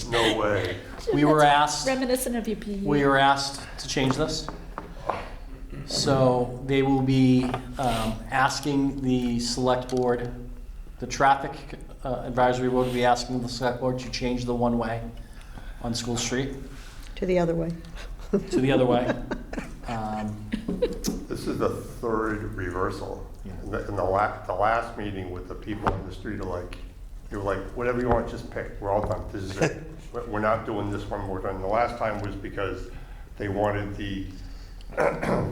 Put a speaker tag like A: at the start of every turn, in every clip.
A: No way.
B: We were
C: That's
B: asked-
C: Reminiscent of your PE.
B: We are asked to change this. So they will be um, asking the select board, the traffic uh, advisory board will be asking the select board to change the one-way on School Street
D: To the other way.
B: to the other way. Um,
A: This is the third reversal.
B: Yeah.
A: In the, in the la, the last meeting with the people in the street are like, they were like, whatever you want, just pick, we're all done, this is it. We're- We're not doing this one more time. The last time was because they wanted the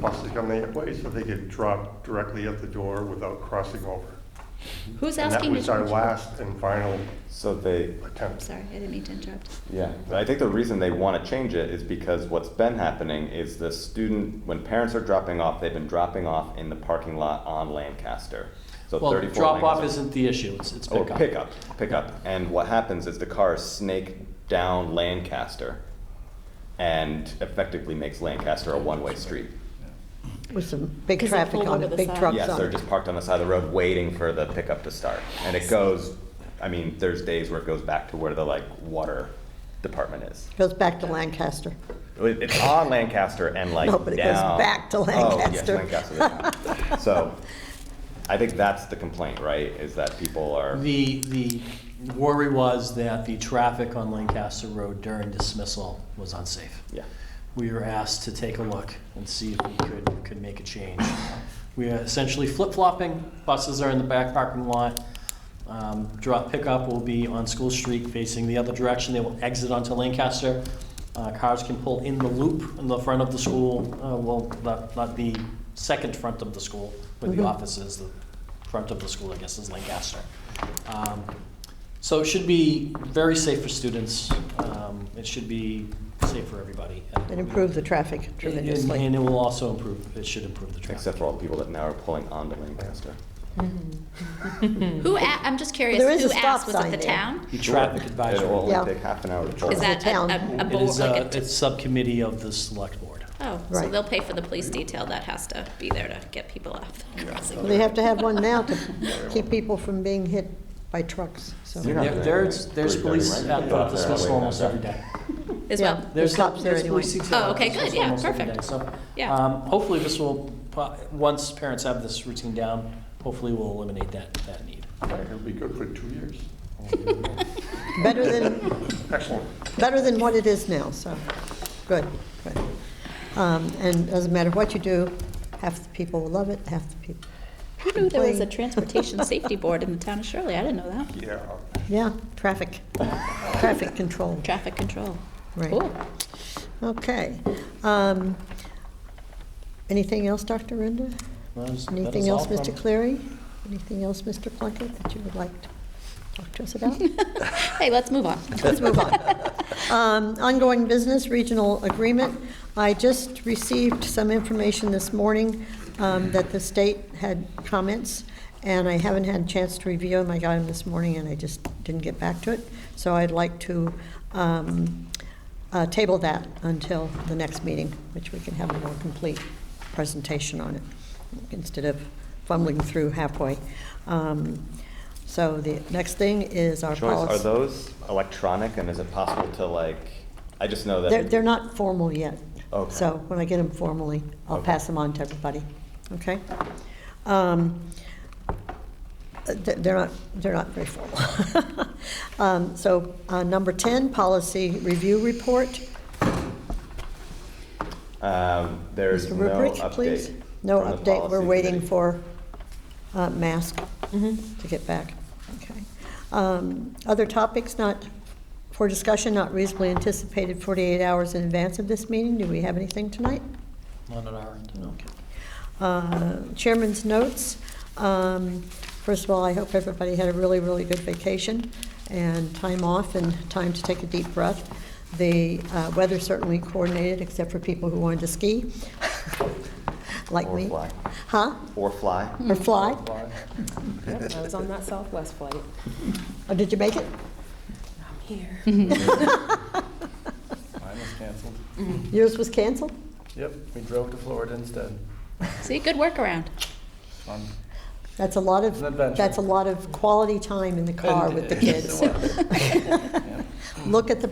A: buses to come that way so they could drop directly at the door without crossing over.
E: Who's
A: And that
E: asking to
A: was our
E: change?
A: last and final
F: So they,
A: attempt.
E: Sorry, I didn't mean to interrupt.
F: yeah, but I think the reason they want to change it is because what's been happening is the student, when parents are dropping off, they've been dropping off in the parking lot on Lancaster. So
B: Well,
F: 34
B: drop-off
F: Lancaster-
B: isn't the issue, it's it's
A: Oh,
F: Or
B: pickup.
F: pickup, pickup. And what happens is the cars snake down Lancaster and effectively makes Lancaster a one-way street.
D: With some big
C: 'Cause they
D: traffic
C: pulled
D: on
C: over
D: it,
C: the
D: big
C: side.
D: trucks
F: Yes,
D: on
F: they're
D: it.
F: just parked on the side of the road waiting for the pickup to start. And it goes, I mean, there's days where it goes back to where the like water department is.
D: Goes back to Lancaster.
F: It- It's on Lancaster and like
D: No, but it goes
F: down-
D: back to
F: Oh, yes,
D: Lancaster.
F: Lancaster, yeah. so I think that's the complaint, right? Is that people are
B: The, the worry was that the traffic on Lancaster Road during dismissal was unsafe.
F: yeah.
B: we were asked to take a look and see if we could, could make a change. We are essentially flip-flopping, buses are in the back parking lot. Um, Drop pickup will be on School Street facing the other direction, they will exit onto Lancaster. Uh, Cars can pull in the loop in the front of the school, uh, well, not, not the second front of the school, where the office is, the front of the school, I guess, is Lancaster. Um, so it should be very safe for students. Um, It should be safe for everybody.
D: It improved the traffic
B: And-
D: tremendously.
B: And it will also improve, it should improve the traffic.
F: Except for all the people that now are pulling onto Lancaster.
E: Who, a- I'm just curious,
D: There is
E: who
D: a stop
E: asked, was
D: sign
E: it the
D: there.
E: town?
B: The traffic advisory.
F: It'll
D: Yeah.
F: only take half an hour to pull.
E: Is that
D: the
E: a-
D: town.
E: a, a
B: It
E: board,
B: is a,
E: like a,
B: it's subcommittee of the select board.
E: oh, so
D: Right.
E: they'll pay for the police detail that has to be there to get people off the crossing.
D: They have to have one now to keep people from being hit by trucks, so.
F: You're not
B: There-
F: gonna
B: There's,
F: get
B: there's
F: three
B: police
F: thirty, right?
B: at
F: You're
B: the
F: out there
B: dismissal
F: waiting
B: almost
F: outside.
B: every day.
E: As
D: Yeah.
E: well,
B: There's
D: cops there
B: there's
D: anyway.
B: police detail
E: Oh,
B: at the
E: okay, good,
B: dismissal
E: yeah,
B: almost every
E: perfect.
B: day. So,
E: Yeah.
B: um, Hopefully this will, pro- once parents have this routine down, hopefully we'll eliminate that, that need.
A: It'll be good for two years.
D: Better than,
A: Excellent.
D: better than what it is now, so, good, good. Um, And doesn't matter what you do, half the people will love it, half the people,
E: who knew there was a
D: complain.
E: transportation safety board in the town of Shirley? I didn't know that.
A: Yeah.
D: yeah, traffic, traffic control,
E: Traffic control.
D: right.
E: Cool.
D: Okay. Um, Anything else, Dr. Rinda?
B: Well, that is- that
D: Anything
B: is
D: else,
B: all
D: Mr.
B: from-
D: Cleary? Anything else, Mr. Plunkett, that you would like to talk to us about?
E: Hey, let's move on.
D: Let's move on. Um, Ongoing business, regional agreement. I just received some information this morning um, that the state had comments, and I haven't had a chance to review them. I got them this morning, and I just didn't get back to it. So I'd like to um, uh, table that until the next meeting, which we can have a more complete presentation on it, instead of fumbling through halfway. Um, So the next thing is our
F: Joyce,
D: policy.
F: are those electronic and is it possible to like, I just know that.
D: They're, they're not formal yet.
F: Okay.
D: So when I get them formally, I'll
F: Okay.
D: pass them on to everybody, okay? Um, uh, th- They're not, they're not very formal. Um, So uh, number 10, policy review report.
F: Um, there's
D: Mr.
F: no
D: Rubric,
F: update.
D: please. No
F: from the
D: update, we're
F: policy
D: waiting
F: committee.
D: for uh, mask to get back. Okay. Um, Other topics not, for discussion not reasonably anticipated 48 hours in advance of this meeting? Do we have anything tonight?
B: Not on our end, no.
D: Uh, Chairman's notes. Um, First of all, I hope everybody had a really, really good vacation and time off and time to take a deep breath. The uh, weather certainly coordinated, except for people who wanted to ski, like
F: Or
D: me.
F: fly.
D: Huh?
F: Or fly.
D: Or fly?
G: Yep, I was on that Southwest flight.
D: Oh, did you make it?
G: I'm here.
H: Mine was canceled.
D: Yours was canceled?
H: Yep, we drove to Florida instead.
E: See, good workaround.
H: Fun.
D: That's a lot of,
H: An adventure.
D: that's a lot of quality time in the car
H: And-
D: with the
H: yes,
D: kids.
H: it was. Yeah.
D: Look at the